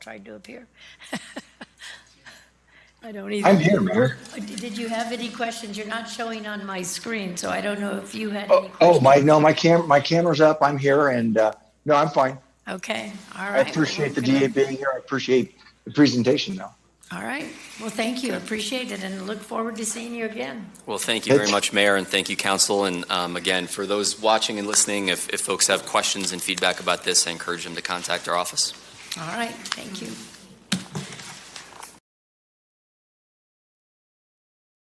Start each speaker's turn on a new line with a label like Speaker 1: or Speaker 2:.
Speaker 1: tried to appear. I don't either.
Speaker 2: I'm here, Mayor.
Speaker 1: Did you have any questions? You're not showing on my screen, so I don't know if you had any
Speaker 2: Oh,
Speaker 1: questions.
Speaker 2: oh, my, no, my cam, my camera's up. I'm here and, uh, no, I'm fine.
Speaker 1: Okay, all
Speaker 2: I
Speaker 1: right.
Speaker 2: appreciate the DA being here. I appreciate the presentation though.
Speaker 1: All right, well, thank you, appreciate it, and look forward to seeing you again.
Speaker 3: Well, thank you very much, Mayor, and thank you, Council. And um, again, for those watching and listening, if, if folks have questions and feedback about this, I encourage them to contact our office.
Speaker 1: All right, thank you.